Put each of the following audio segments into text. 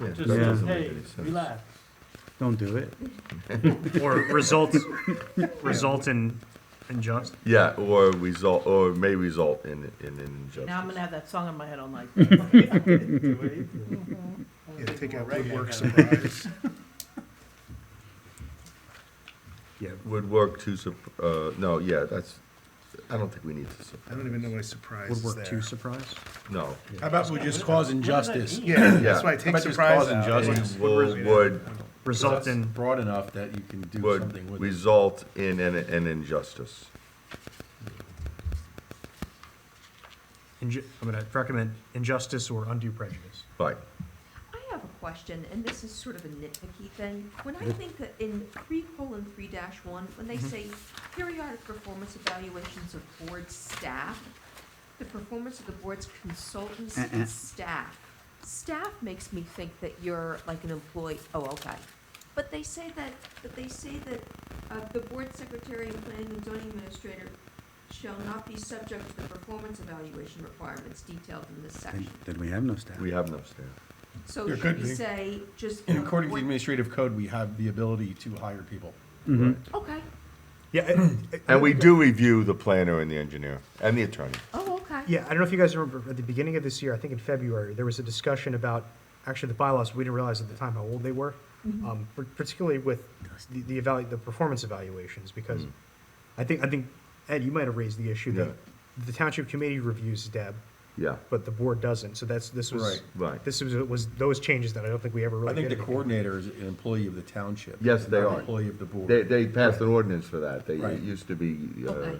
Yeah, that Just, Yeah. just, doesn't hey, make any sense. relax. Don't do it. or results, result in injustice. Yeah, or result, or may result in, in an Now I'm gonna injustice. have that song in my head all night. Yeah, take out Reggae woodwork kind of supplies. Yeah. Would work to, sup- uh, no, yeah, that's, I don't think we need to, I sup- don't even know why surprise is Woodwork two there. surprise. no. How about we just cause injustice? Yeah, Yeah. that's why I How take about just surprise cause out. injustice? Will, would, Result That's in Broad enough that you can do something would with it. result in an, an injustice. inju- I'm going to recommend injustice or undue prejudice. Right, I have a question, and this is sort of a nitpicky thing. When I think that in three colon three dash one, when they say periodic performance evaluations of board staff, the performance of the board's consultants Uh-uh. and staff. Staff makes me think that you're like an employee, oh, okay. But they say that, but they say that, uh, the board secretary and planning and zoning administrator shall not be subject to the performance evaluation requirements detailed in this Then, section. then we have no staff. we have no staff. So There should could we be. say just? And according to the what- administrative code, we have the ability to hire people. Mhm. Okay, Yeah, I- And we do review the planner and the engineer and the attorney. oh, okay. Yeah, I don't know if you guys remember, at the beginning of this year, I think in February, there was a discussion about, actually, the bylaws, we didn't realize at the time how old they were, um, par- particularly with the, the evalu, the performance evaluations, Mm. because I think, I think, Ed, you might have raised the issue that the township committee reviews Deb, Yeah, but the board doesn't, so that's, this was, Right. right. this was, was those changes that I don't think we ever really I think the did. anything. coordinator is an employee of the township. Yes, they not an are. Employee of the They, board. they passed an ordinance for that. They, Right. it used to be, uh, Okay.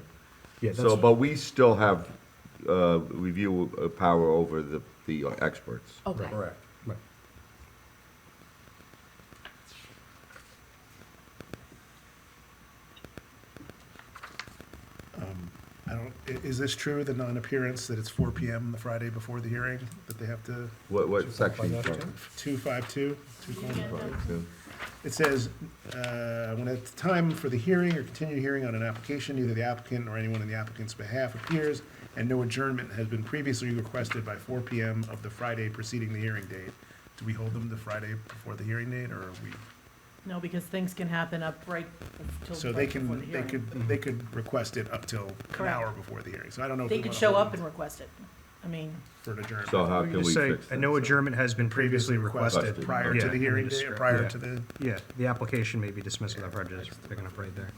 Yeah, so, that's, but we still have, uh, review uh, power over the, the experts. Okay. Correct. Right. I don't, i- is this true, the non-appearance, that it's four PM the Friday before the hearing, that they have to, What, what section? two five two? Yeah. It says, uh, when at the time for the hearing or continued hearing on an application, either the applicant or anyone on the applicant's behalf appears, and no adjournment has been previously requested by four PM of the Friday preceding the hearing date. Do we hold them the Friday before the hearing date, or are we? No, because things can happen up right till. So right they before the can, they hearing. could, they could request it up till an hour before the hearing, so I don't know. if They we could wanna show hold up them and request it. I mean, For an adjournment. So how we can just we say, fix a that? no adjournment has been previously requested. Prior Yeah, to the and hearing we day, or describe- prior yeah. to the. Yeah, the application may be dismissed without prejudice, picking up right there.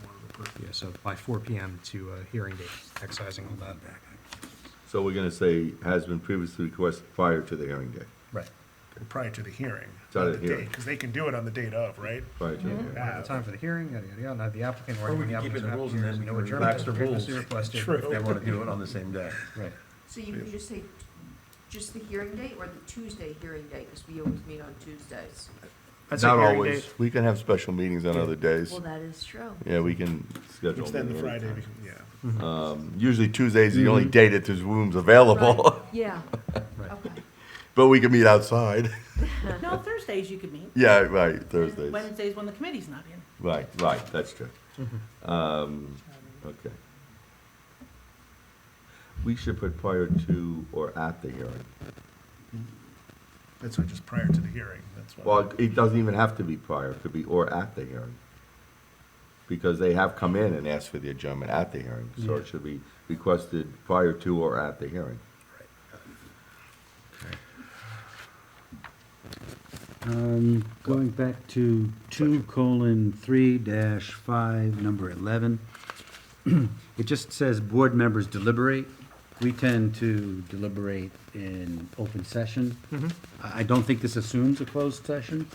Yeah, so by four PM to uh, hearing date, excising all that. So we're gonna say has been previously requested prior to the hearing day, Right. priared to the hearing. To the hearing. Because they can do it on the date of, right? prior to the hearing. At the time for the hearing, yada, yada, yada, not the applicant or Or we anyone can keep it applicant's in the rules and appearance, then we no can adjournment relax is the rules. previously requested. If they want to do it on the same day. Right. So you can just say, just the hearing date or the Tuesday hearing date, because we always meet on Tuesdays? I'd say Not hearing always. date. We can have special meetings on other days. Well, that is true. Yeah, we can schedule. Um, Which then the them at Friday, any becau- yeah. time. Usually Tuesday's the only day that there's rooms available, Right, Yeah, Right. okay. but we can meet outside. no, Thursdays you could meet. Yeah, right, Thursdays. Wednesdays when the committee's not in. Right, right, that's true. Mm-hmm. Um, okay. We should put prior to or at the hearing. That's why just prior to the hearing, that's why. Well, it doesn't even have to be prior, it could be or at the hearing. Because they have come in and asked for the adjournment at the hearing, so it should be requested prior to or at the hearing. Um, going back to two colon three dash five, number eleven. It just says board members deliberate. We tend to deliberate in open session. I, I don't think this assumes a closed session.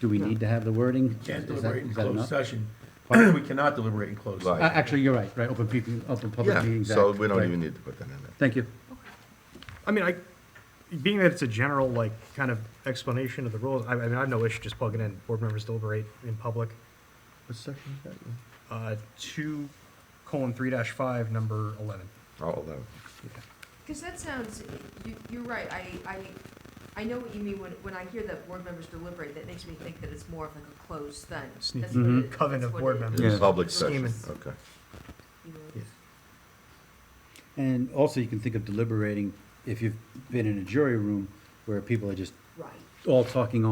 Do we need to have the wording? Can't Is that- deliberate in is that closed enough? session. We cannot deliberate in closed Right. Uh, session. Actually, you're right, right, open people, open public Yeah, meetings. so Act, we don't right. even need to put that in there. Thank you. I mean, I, being that it's a general, like, kind of explanation of the rules, I, I mean, I have no issue just plugging in, board members deliberate in public. What section is that? Uh, two colon three dash five, number eleven. Oh, eleven. Because that sounds, you, you're right, I, I, I know what you mean when, when I hear that board members deliberate, that makes me think that it's more of like a closed thing. Sneaky That's what it- Mhm. coven that's of what board it is. members. Yeah. Public Scheming. session, okay. You know, Yeah. And also, you can think of deliberating if you've been in a jury room where people are just Right. all talking